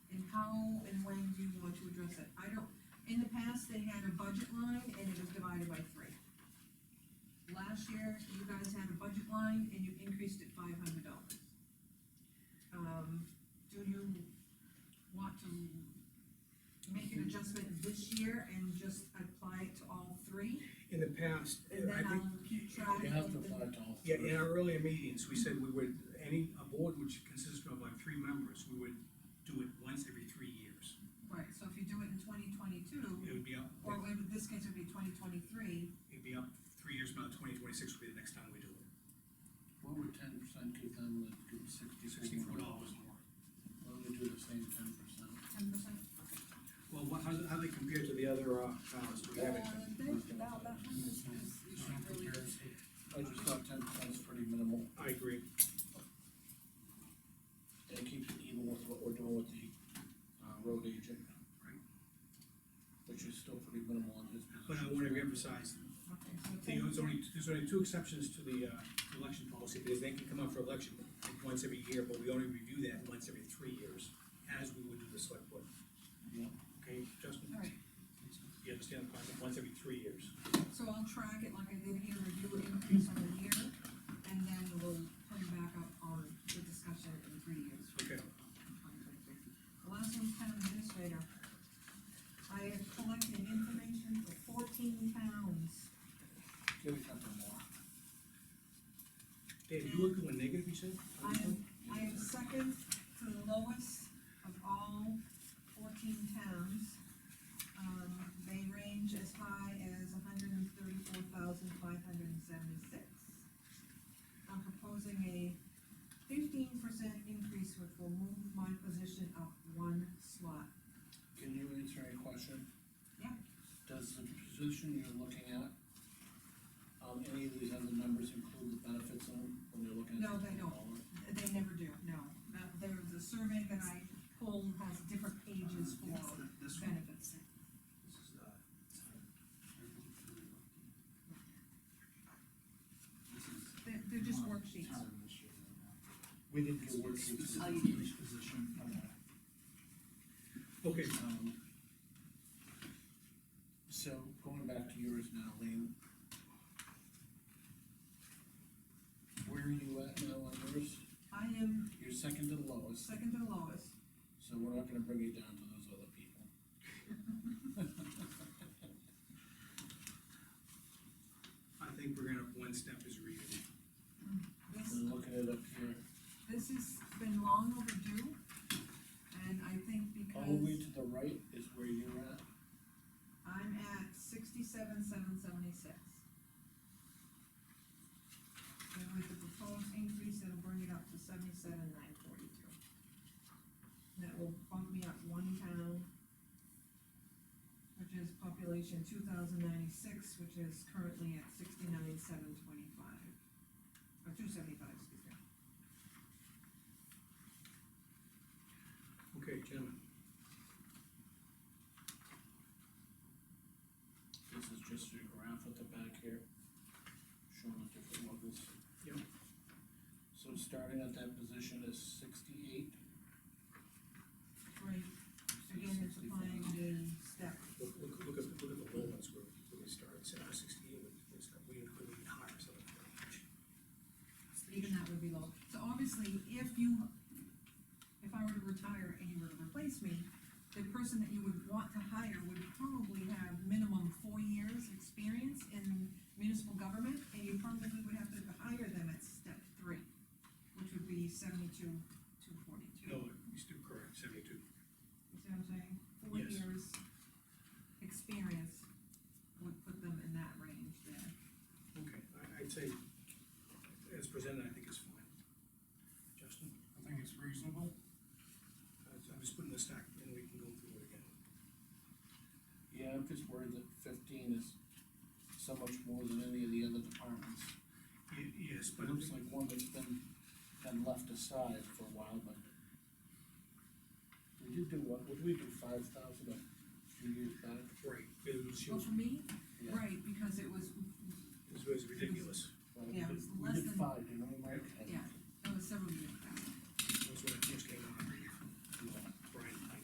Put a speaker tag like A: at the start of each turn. A: and when do you want to address it? I don't, in the past, they had a budget line and it was divided by three. Last year, you guys had a budget line and you increased it five hundred dollars. Um, do you want to make an adjustment this year and just apply it to all three?
B: In the past,
A: And
B: I
A: then
B: think,
A: I'll keep track.
C: You have to
A: and then-
C: apply it to all
B: yeah,
C: three.
B: in our earlier meetings, we said we would, any, a board which consisted of like three members, we would do it once every three years.
A: Right, so if you do it in twenty
B: It
A: twenty-two,
B: would be up,
A: or in this case, it'd be twenty twenty-three,
B: it'd be up three years, about twenty twenty-six would be the next time we do it.
C: What would ten percent give them, would give sixty-four
B: Sixty-four
C: dollars?
B: dollars more.
C: Why don't we do the same ten percent?
A: ten percent.
B: Well, what, how, how they compare to the other, uh, towns, do we have anything?
C: I just thought ten percent is pretty minimal,
B: I agree.
C: and it keeps it even with what we're doing with the, uh, road agent.
B: Right.
C: Which is still pretty minimal on his position.
B: But I wanna reemphasize, there's only, there's only two exceptions to the, uh, election policy, because they can come up for election once every year, but we only review that once every three years, as we would do the select board.
C: Yeah.
B: Okay, Justin?
A: Alright.
B: You understand the concept, once every three years.
A: So I'll track it like I did here, review it increase on the year, and then we'll put it back up on the discussion in three years.
B: Okay.
A: The Last one's town administrator. I have collected information for fourteen towns.
C: Give a couple more.
B: Dave, you were doing negative, you said?
A: I am, I am second to the lowest of all fourteen towns. Um, they range as high as hundred and thirty-four thousand five hundred and seventy-six. I'm proposing a fifteen percent increase, which will move my position up one slot.
C: Can you answer a question?
A: Yeah.
C: Does the position you're looking at, um, any of these other numbers include the benefits on, them when you're looking at?
A: No, they don't.
C: all of it?
A: They never do, no. That- There was a survey that I pulled, has different pages for
B: This
A: benefits.
B: this is, uh,
A: They're, they're just worksheets.
C: We didn't get worksheets.
D: Oh, you didn't.
C: Position.
B: Okay,
C: Um, So going back to yours now, Lean. Where are you at now on yours?
A: I am
C: You're second to the lowest,
A: second to the lowest.
C: so we're not gonna bring you down to those other people.
B: I think we're gonna, one step is reading.
A: This,
C: We're looking at up here,
A: this has been long overdue, and I think
C: all the way
A: because
C: to the right is where you're at.
A: I'm at sixty-seven, seven seventy-six. And with the proposed increase, it'll bring it up to seventy-seven, nine forty-two. That will bump me up one town, which is population two thousand ninety-six, which is currently at sixty-nine, seven twenty-five, or two seventy-five, excuse me.
B: Okay, gentlemen,
C: This is just your graph at the back here, showing the different levels.
B: Yep.
C: So starting at that position is sixty-eight.
A: Right, again, it's applying the step,
B: look, look, look at, the- look at the low ones where, where we started, so sixty-eight, it's, we didn't, we didn't hire someone.
A: even that would be low. So obviously, if you, if I were to retire and you were to replace me, the person that you would want to hire would probably have minimum four years' experience in municipal government, and you probably would have to hire them at step three, which would be seventy-two, two forty-two.
B: No, you still correct, seventy-two.
A: You see what I'm saying? Four
B: Yes.
A: years' experience would put them in that range there.
B: Okay, I, I'd say, as presented, I think it's fine. Justin?
D: I think it's reasonable.
B: I- I'm just putting this back, and we can go through it again.
C: Yeah, I'm just worried that fifteen is so much more than any of the other departments.
B: Ye- Yes,
C: It looks like one that's been, been left aside for a while, but. We did do what, would we do five thousand a few years back?
B: Right, it was,
A: Well,
B: it
A: for me,
C: Yeah.
A: right, because it was,
B: was ridiculous.
C: Well,
A: Yeah, it's
C: We
A: less
C: did
A: than-
C: five, didn't we, Mike?
A: yeah, that was several years.